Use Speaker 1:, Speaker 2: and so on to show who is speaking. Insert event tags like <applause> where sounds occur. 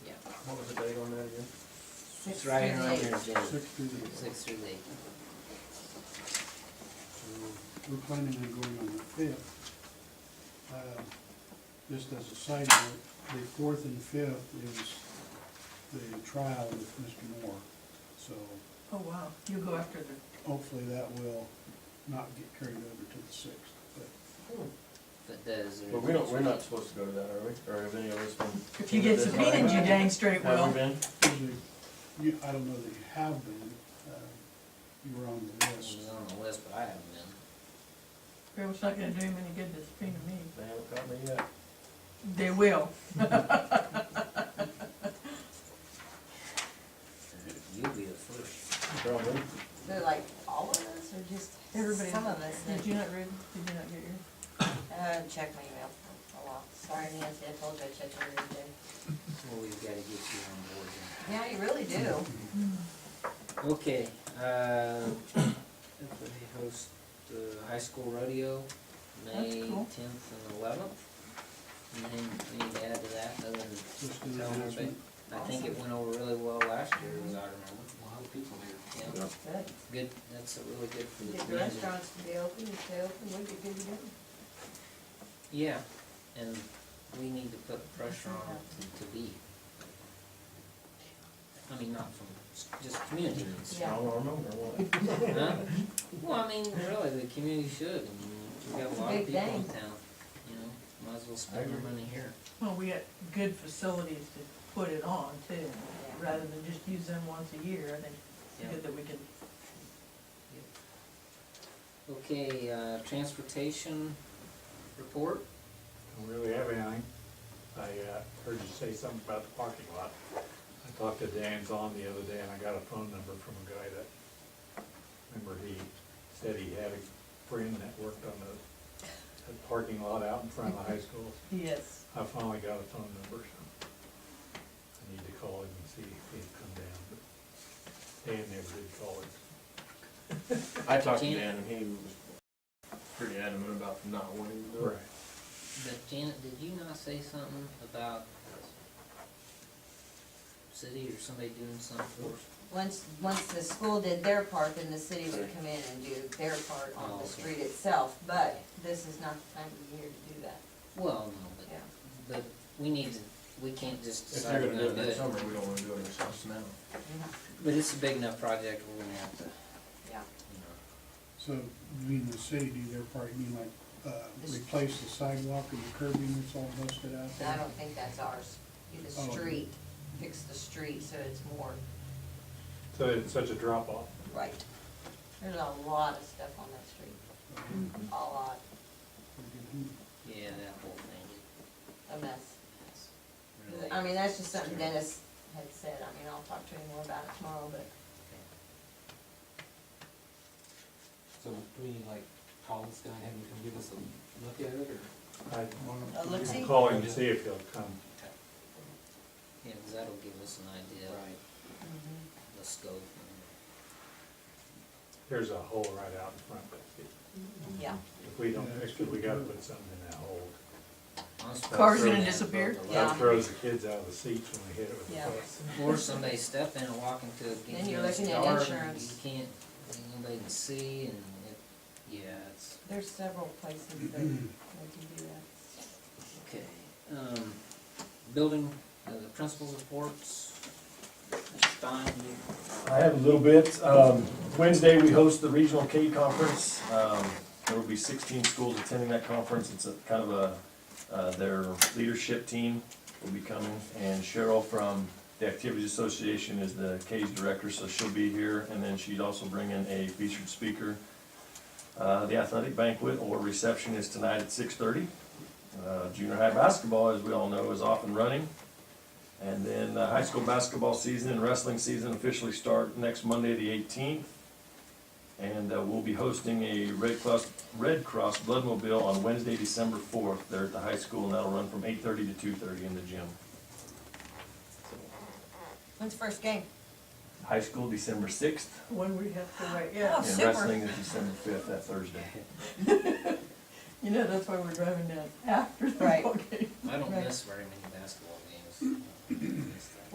Speaker 1: Six
Speaker 2: It's right
Speaker 1: through
Speaker 2: on
Speaker 1: eight.
Speaker 2: there, Jay.
Speaker 3: Six through eight. So
Speaker 2: Six through eight.
Speaker 3: We're planning on going on the fifth. Uh, Just as a side note, the fourth and fifth is the trial with Mr. Moore. So
Speaker 1: Oh, wow, you go after the,
Speaker 3: hopefully that will not get carried over to the sixth. But
Speaker 2: But those are.
Speaker 4: But we don't, we're not supposed to go to that, are we? Or have any of us been?
Speaker 1: if you get subpoenaed, you dang straight
Speaker 4: Have
Speaker 1: will.
Speaker 4: we been?
Speaker 3: usually, you, I don't know that you have been, uh, you were on the
Speaker 2: I was
Speaker 3: list.
Speaker 2: on the list, but I haven't been.
Speaker 1: Girl's not gonna do him any good to subpoena me.
Speaker 4: They haven't caught me yet.
Speaker 1: They will.
Speaker 2: You'll be the first.
Speaker 4: Probably.
Speaker 5: So like all of us or just
Speaker 1: Everybody.
Speaker 5: some of us?
Speaker 1: Did
Speaker 5: that-
Speaker 1: you not read, did you not get your?
Speaker 5: Uh, check my email. Oh well, sorry Nancy, I told you I checked every day.
Speaker 2: Well, we've gotta get you on board here.
Speaker 5: Yeah, you really do.
Speaker 2: Okay, uh, <coughs> we host the high school rodeo, May
Speaker 1: That's cool.
Speaker 2: tenth and eleventh. Anything we need to add to that, other
Speaker 3: Just an
Speaker 2: than tell them,
Speaker 3: announcement.
Speaker 2: but I think it went over really well last year, as I remember. people Yeah,
Speaker 5: Good.
Speaker 2: good, that's a really good for the
Speaker 5: Did the
Speaker 2: community.
Speaker 5: restaurants be open, you stay open, we could do them.
Speaker 2: Yeah, and we need to put pressure on it to be. I mean, not from, s- just community needs.
Speaker 4: Strong arm 'em or what?
Speaker 2: <laughs> Huh? Well, I mean, really, the community should, I mean, we got a
Speaker 5: It's a
Speaker 2: lot of
Speaker 5: big
Speaker 2: people in
Speaker 5: thing.
Speaker 2: town, you know, might as well spend our
Speaker 4: agree.
Speaker 2: money here.
Speaker 1: Well, we got good facilities to put it on too, rather than just use them once a year, I think it's good that we can.
Speaker 2: Okay, uh, transportation report,
Speaker 6: don't really have anything. I uh, heard you say something about the parking lot. I talked to Dan Zahn the other day, and I got a phone number from a guy that, remember, he said he had a friend that worked on the, the parking lot out in front of the high school.
Speaker 1: Yes.
Speaker 6: I finally got a phone number, so I need to call him and see if he'd come down, but Dan never did call him.
Speaker 4: I talked to Dan and he was pretty adamant about not wanting to do it.
Speaker 2: but Janet, did you not say something about city or somebody doing something for us?
Speaker 5: Once, once the school did their part, then the city would come in and do their part
Speaker 2: Oh,
Speaker 5: on
Speaker 2: okay.
Speaker 5: the street itself, but this is not the time of year to do that,
Speaker 2: Well, no, but,
Speaker 5: yeah.
Speaker 2: but we need to, we can't just
Speaker 4: If
Speaker 2: decide
Speaker 4: they're
Speaker 2: we're
Speaker 4: gonna do
Speaker 2: gonna
Speaker 4: it
Speaker 2: do
Speaker 4: next
Speaker 2: it.
Speaker 4: summer, we don't wanna do it ourselves now.
Speaker 2: But it's a big enough project, we're gonna have to, you
Speaker 5: Yeah,
Speaker 2: know,
Speaker 3: So, you mean the city do their part, you mean like, uh, replace the sidewalk and the curbing that's all busted out
Speaker 5: And I
Speaker 3: there?
Speaker 5: don't think that's ours, do the
Speaker 3: Oh.
Speaker 5: street, fix the street so it's more
Speaker 6: So it's such a drop off.
Speaker 5: right. There's a lot of stuff on that street, a lot,
Speaker 2: yeah, that whole thing.
Speaker 5: a mess.
Speaker 2: It's really-
Speaker 5: I mean, that's just something Dennis had said, I mean, I'll talk to him more about it tomorrow, but
Speaker 7: So do we need like call this guy and have him come give us a look at it or?
Speaker 6: I
Speaker 5: Uh,
Speaker 6: you
Speaker 5: Lexi?
Speaker 6: can call him and see if he'll come.
Speaker 2: Yeah, because that'll give us an idea of
Speaker 5: Mm-hmm.
Speaker 2: the scope and
Speaker 6: There's a hole right out in front, but it-
Speaker 5: yeah,
Speaker 6: If we don't fix it, we gotta put something in that hole.
Speaker 2: honestly.
Speaker 1: Car's
Speaker 6: gonna
Speaker 1: disappear?
Speaker 6: That
Speaker 5: Yeah.
Speaker 6: throws the kids out of the seats when we hit it with the
Speaker 5: Yeah.
Speaker 6: bus.
Speaker 2: Or somebody step in and walk into a
Speaker 5: Then you're
Speaker 2: continuous
Speaker 5: looking at
Speaker 2: car and you
Speaker 5: insurance.
Speaker 2: can't, nobody can see and it, yeah, it's,
Speaker 5: there's several places that they can do that.
Speaker 2: okay. Um, building, uh, the principal's reports, Stein, you-
Speaker 8: I have a little bit. Um, Wednesday, we host the Regional K Conference. Um, There will be sixteen schools attending that conference. It's a kind of a, uh, their leadership team will be coming. And Cheryl from the Activities Association is the K's director, so she'll be here. And then she'd also bring in a featured speaker. Uh, The athletic banquet or reception is tonight at six thirty. Uh, Junior high basketball, as we all know, is off and running. And then the high school basketball season and wrestling season officially start next Monday, the eighteenth. And uh, we'll be hosting a Red Cross, Red Cross Blood Mobile on Wednesday, December fourth, there at the high school, and that'll run from eight thirty to two thirty in the gym.
Speaker 5: When's the first game?
Speaker 8: High school, December sixth,
Speaker 1: When we have to write,
Speaker 5: Oh,
Speaker 1: yeah,
Speaker 8: and
Speaker 5: super.
Speaker 8: wrestling is December fifth, that Thursday.
Speaker 1: you know, that's why we're driving down after the
Speaker 5: Right.
Speaker 1: ball game.
Speaker 2: I don't
Speaker 5: Right.
Speaker 2: miss very many